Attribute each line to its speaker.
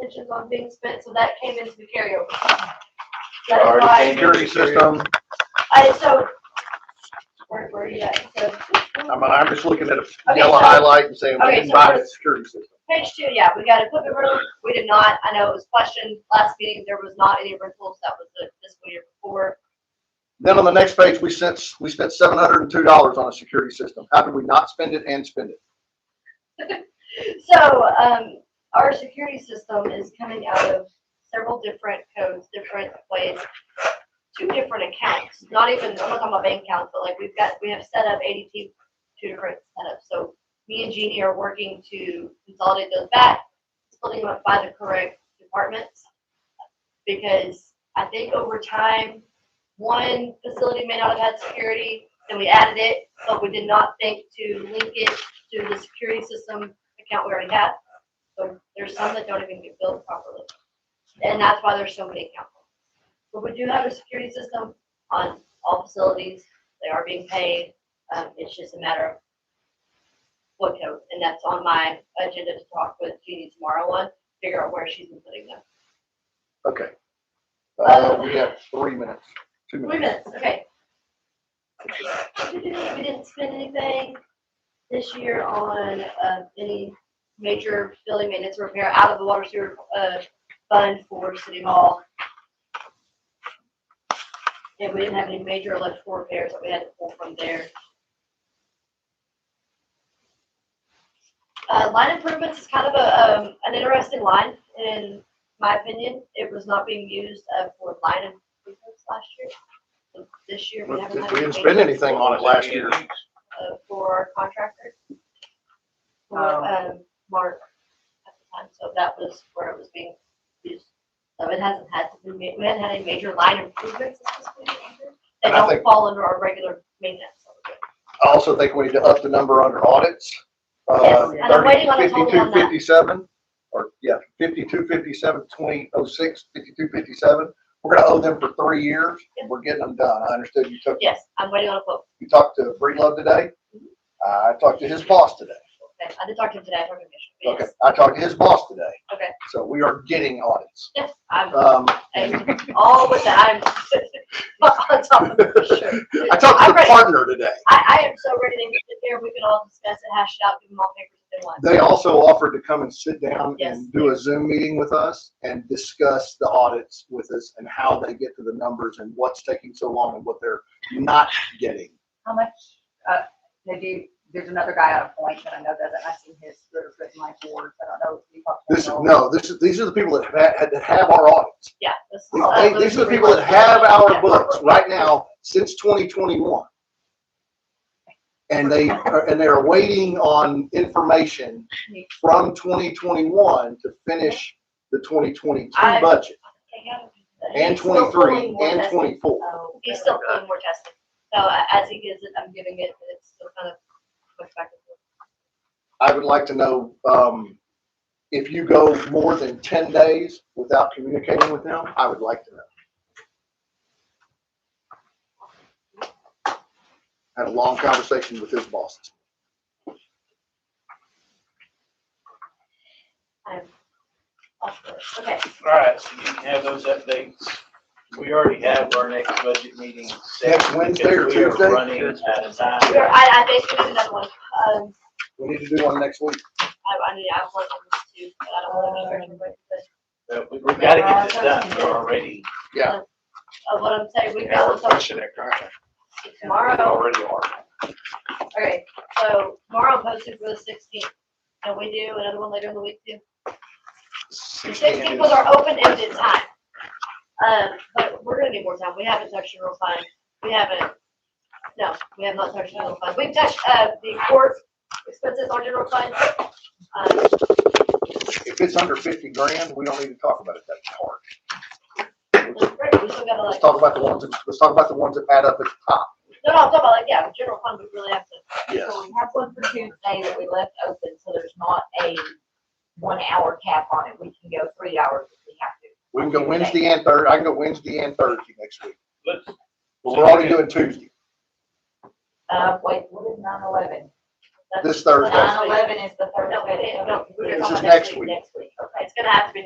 Speaker 1: intentions on being spent, so that came into the carryover. That is
Speaker 2: Already
Speaker 1: why,
Speaker 2: came to the system.
Speaker 1: I, so, where, where are you at? So,
Speaker 2: I'm, I'm just looking at a
Speaker 1: Okay,
Speaker 2: yellow
Speaker 1: so-
Speaker 2: highlight and saying, we
Speaker 1: okay,
Speaker 2: can
Speaker 1: so
Speaker 2: buy the
Speaker 1: first-
Speaker 2: security system.
Speaker 1: Page two, yeah, we got equipment rental, we did not, I know it was questioned last meeting, there was not any rentals, that was the fiscal year before.
Speaker 2: Then on the next page, we sent, we spent seven hundred and two dollars on a security system. How did we not spend it and spend it?
Speaker 1: So, um, our security system is coming out of several different codes, different ways, two different accounts, not even, I'm not talking about bank accounts, but like we've got, we have set up ADT, two different setups, so me and Jeannie are working to consolidate those back, splitting them up by the correct departments. Because I think over time, one facility may not have had security, and we added it, but we did not think to link it to the security system account we already had. So there's some that don't even get billed properly. And that's why there's so many accounts. But we do have a security system on all facilities. They are being paid. Um, it's just a matter of what code, and that's on my agenda to talk with Jeannie tomorrow on, figure out where she's been putting them.
Speaker 2: Okay. Uh, we have three minutes, two
Speaker 1: Three
Speaker 2: minutes.
Speaker 1: minutes, okay. We didn't spend anything this year on, uh, any major building maintenance repair out of the water sewer, uh, fund for city hall. And we didn't have any major electrical repairs that we had to pull from there. Uh, line improvements is kind of a, um, an interesting line, in my opinion, it was not being used, uh, for line improvements last year. So This year, we haven't had.
Speaker 2: We didn't
Speaker 1: any
Speaker 2: spend
Speaker 1: major-
Speaker 2: anything on it last year.
Speaker 1: uh, for our contractor. For,
Speaker 3: Um.
Speaker 1: um, Mark at the time, so that was where it was being used. So it hasn't had, to be ma- we haven't had any major line improvements this fiscal year. They
Speaker 2: And I
Speaker 1: don't
Speaker 2: think-
Speaker 1: fall under our regular maintenance. so we're good.
Speaker 2: I also think we need to up the number under audits. Uh,
Speaker 1: Yes, and I'm waiting on a total on that.
Speaker 2: 5257, or, yeah, fifty-two fifty-seven, twenty oh six, fifty-two fifty-seven. We're gonna owe them for three years, and we're getting them done. I understood you took,
Speaker 1: Yes, I'm waiting on a quote.
Speaker 2: you talked to Breedlove today? I talked to his boss today.
Speaker 1: Okay, I did talk to him today, I talked to him yesterday.
Speaker 2: Okay, I talked to his boss today.
Speaker 1: Okay.
Speaker 2: So we are getting audits.
Speaker 1: Yes, yes, I'm,
Speaker 2: Um,
Speaker 1: I'm all with that, I'm on top of it for sure.
Speaker 2: I talked to
Speaker 1: I'm
Speaker 2: the
Speaker 1: ready.
Speaker 2: partner today.
Speaker 1: I, I am so ready to get there, we can all discuss it, hash it out, give them all papers if they want.
Speaker 2: They also offered to come and sit down
Speaker 1: Yes.
Speaker 2: and do a Zoom meeting with us and discuss the audits with us and how they get to the numbers and what's taking so long and what they're not getting.
Speaker 3: How much, uh, they do, there's another guy out of Point that I know does it, I've seen his, letters written like boards, I don't know. if you talked to
Speaker 2: This is,
Speaker 1: Oh.
Speaker 3: him.
Speaker 2: no, this is, these are the people that have, had- that have our audits.
Speaker 1: Yeah. this is, uh,
Speaker 2: They- These are the
Speaker 1: three
Speaker 2: people that
Speaker 1: months.
Speaker 2: have
Speaker 1: Yeah.
Speaker 2: our books right now since twenty twenty-one. And they, are- and they're waiting on information from twenty twenty-one to finish the twenty twenty-two
Speaker 1: I-
Speaker 2: budget and
Speaker 1: He's still
Speaker 2: twenty-three
Speaker 1: pulling more
Speaker 2: and
Speaker 1: testing.
Speaker 2: twenty-four.
Speaker 1: He's still pulling more testing. So uh, as he gives it, I'm giving it, but it's still kind of pushed back and forth.
Speaker 2: I would like to know, um, if you go more than ten days without communicating with them, I would like to know. Had a long conversation with his boss.
Speaker 1: I'm off the- Okay,
Speaker 4: All right, so you can have those updates. We already have our next budget meeting. set
Speaker 2: Next Wednesday or
Speaker 4: because we are
Speaker 2: Tuesday?
Speaker 4: Running out of time.
Speaker 1: Here, I, I think we need another one. Um,
Speaker 2: We need to do one next week.
Speaker 1: I, I need, I want them to, but I don't want to be stretching, but,
Speaker 4: But we, we gotta get this done. We're already,
Speaker 1: uh, what I'm saying, we
Speaker 4: yeah,
Speaker 1: got
Speaker 4: we're
Speaker 1: this up
Speaker 4: pushing it, right? We
Speaker 1: tomorrow.
Speaker 4: already are.
Speaker 1: Okay, so tomorrow posted for the sixteenth. Can we do another one later in the week too? The sixteenth was our open-ended time. Um, but we're gonna need more time. We haven't touched general fund. We haven't, no, we have not touched general fund. We've touched, uh, the court expenses on general fund. Um,
Speaker 2: If it's under fifty grand, we don't need to talk about it that hard.
Speaker 1: it's great. We still gotta
Speaker 2: Let's
Speaker 1: like,
Speaker 2: talk about the ones, that- let's talk about the ones that add up at the top.
Speaker 1: no, no, I'm talking about like, yeah, general fund, we really have to.
Speaker 2: Yes.
Speaker 5: We have one for Tuesday that we left open, so there's not a one-hour cap on it. We can go three hours if we have to.
Speaker 2: We can go Wednesday and Thursday. I can go Wednesday and Thursday next week.
Speaker 4: Let's-
Speaker 2: But we're already doing Tuesday,
Speaker 5: Uh, wait, what is nine eleven?
Speaker 1: that's-
Speaker 2: this Thursday.
Speaker 1: Last
Speaker 5: Nine
Speaker 1: week.
Speaker 5: eleven is the
Speaker 1: No,
Speaker 5: Thursday.
Speaker 1: it- no, we're
Speaker 2: This
Speaker 1: talking
Speaker 2: is
Speaker 1: about
Speaker 2: next week.
Speaker 5: Next week, okay.
Speaker 1: It's gonna have to be next